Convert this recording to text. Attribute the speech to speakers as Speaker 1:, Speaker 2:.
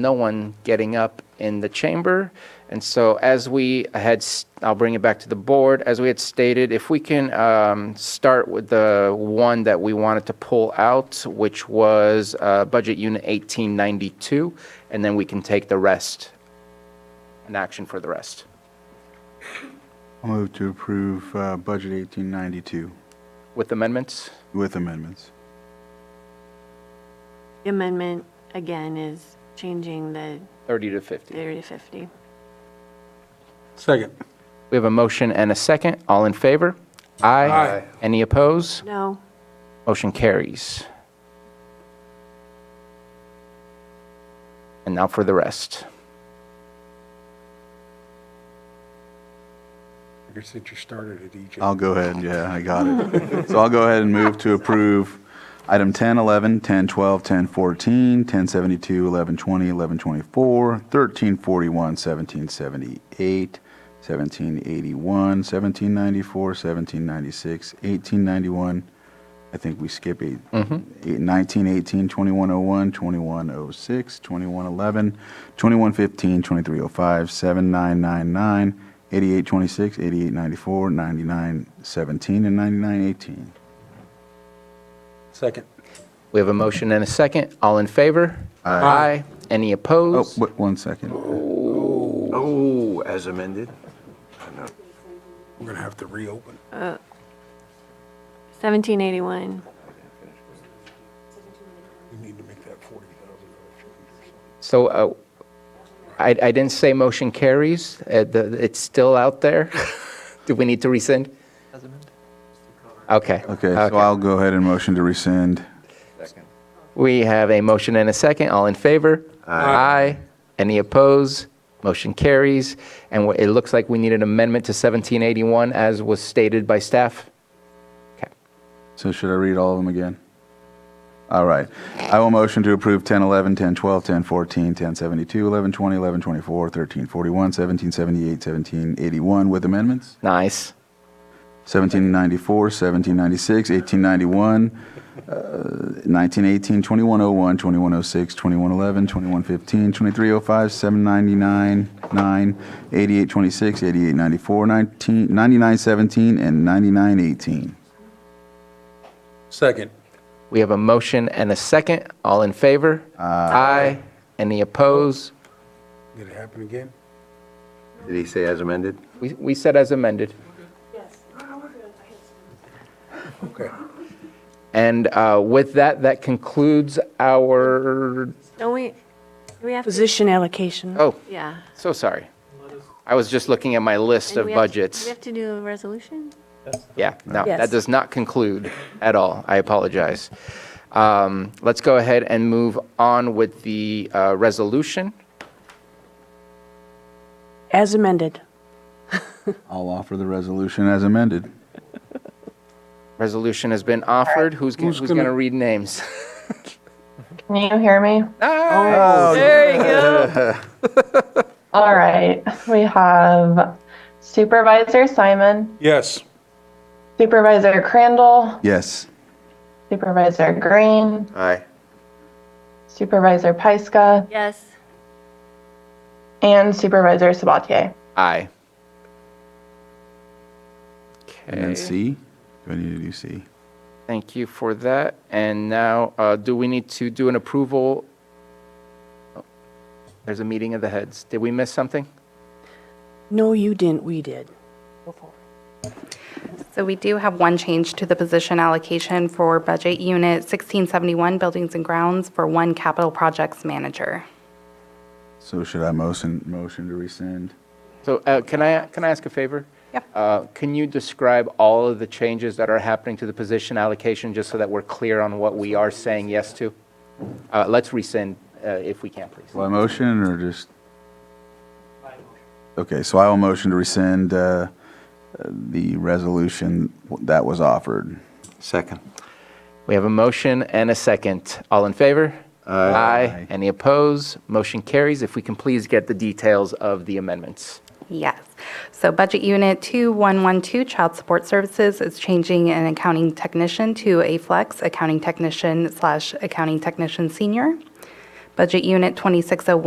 Speaker 1: no one getting up in the chamber. And so, as we had, s- I'll bring it back to the board, as we had stated, if we can um, start with the one that we wanted to pull out, which was uh, Budget Unit 1892, and then we can take the rest, an action for the rest.
Speaker 2: I'll move to approve uh, Budget 1892
Speaker 1: With amendments?
Speaker 2: with amendments.
Speaker 3: The amendment, again, is changing the
Speaker 1: 30 to 50.
Speaker 3: 30 to 50.
Speaker 4: Second.
Speaker 1: We have a motion and a second. All in favor?
Speaker 4: Aye.
Speaker 1: Any opposed?
Speaker 3: No,
Speaker 1: Motion carries. And now for the rest.
Speaker 4: I guess that you started at E EJ.
Speaker 2: I'll go ahead, yeah, I got it. So I'll go ahead and move to approve item 10, 11, 10, 12, 10, 14, 10, 72, 11, 20, 11, 24, 13, 41, 17, 78, 17, 81, 17, 94, 17, 96, 18, 91. I think we skip eight, eight- 19, 18, 21, 01, 21, 06, 21, 11, 21, 15, 23, 05, 7999, 88, 26, 88, 94, 99, 17, and 99, 18.
Speaker 4: Second.
Speaker 1: We have a motion and a second. All in favor? Aye. Any
Speaker 2: Oh,
Speaker 1: opposed?
Speaker 2: wait, one second.
Speaker 5: Oh, as amended?
Speaker 4: We're going to have to reopen.
Speaker 3: 1781.
Speaker 4: We need to make that $40,000 change
Speaker 1: So uh, I I didn't say motion carries. Uh, the- It's still out there. Do we need to rescind? Okay.
Speaker 2: Okay, so I'll go ahead and motion to rescind.
Speaker 1: We have a motion and a second. All in favor? Aye. Any opposed? Motion carries. And wh- it looks like we need an amendment to 1781 as was stated by staff. Okay.
Speaker 2: So should I read all of them again? All right. I will motion to approve 10, 11, 10, 12, 10, 14, 10, 72, 11, 20, 11, 24, 13, 41, 17, 78, 17, 81 with amendments.
Speaker 1: Nice.
Speaker 2: 1794, 1796, 1891, uh, 1918, 2101, 2106, 2111, 2115, 2305, 799, 9, 8826, 8894, 19, 9917, and 9918.
Speaker 4: Second.
Speaker 1: We have a motion and a second. All in favor? Aye. Any opposed?
Speaker 4: Did it happen again?
Speaker 5: Did he say as amended?
Speaker 1: We we said as amended.
Speaker 4: Okay.
Speaker 1: And uh, with that, that concludes our,
Speaker 3: Don't we, do we have to?
Speaker 6: Position allocation.
Speaker 1: oh,
Speaker 3: Yeah.
Speaker 1: so sorry. I was just looking at my list
Speaker 3: And
Speaker 1: of
Speaker 3: we have to-
Speaker 1: budgets.
Speaker 3: We have to do a resolution?
Speaker 1: Yeah, no, that
Speaker 6: Yes.
Speaker 1: does not conclude at all. I apologize. Um, Let's go ahead and move on with the uh, resolution.
Speaker 6: As amended.
Speaker 2: I'll offer the resolution as amended.
Speaker 1: Resolution has been offered. Who's, g- who's going to read names?
Speaker 7: Can you hear me?
Speaker 1: There you go.
Speaker 7: All right. We have Supervisor Simon,
Speaker 4: Yes.
Speaker 7: Supervisor Crandall,
Speaker 2: Yes.
Speaker 7: Supervisor Green,
Speaker 5: Aye.
Speaker 7: Supervisor Pyska,
Speaker 3: Yes.
Speaker 7: and Supervisor Sabatier.
Speaker 1: Aye.
Speaker 2: And then
Speaker 1: Okay,
Speaker 2: C? Do I need to do C?
Speaker 1: thank you for that. And now, uh, do we need to do an approval? Oh, There's a meeting of the heads. Did we miss something?
Speaker 6: No, you didn't, we did.
Speaker 8: So we do have one change to the position allocation for Budget Unit 1671, Buildings and Grounds, for one capital projects manager.
Speaker 2: So should I motion, motion to rescind?
Speaker 1: So uh, can I, can I ask a favor?
Speaker 8: Yeah.
Speaker 1: Uh, Can you describe all of the changes that are happening to the position allocation, just so that we're clear on what we are saying yes to? Uh, Let's rescind uh, if we can, please.
Speaker 2: By motion or just? Okay, so I will motion to rescind uh, uh, the resolution that was offered.
Speaker 5: Second.
Speaker 1: We have a motion and a second. All in favor? Aye. Any opposed? Motion carries. If we can please get the details of the amendments.
Speaker 8: Yes. So Budget Unit 2112, Child Support Services, is changing an accounting technician to a flex accounting technician slash accounting technician senior. Budget Unit 2601,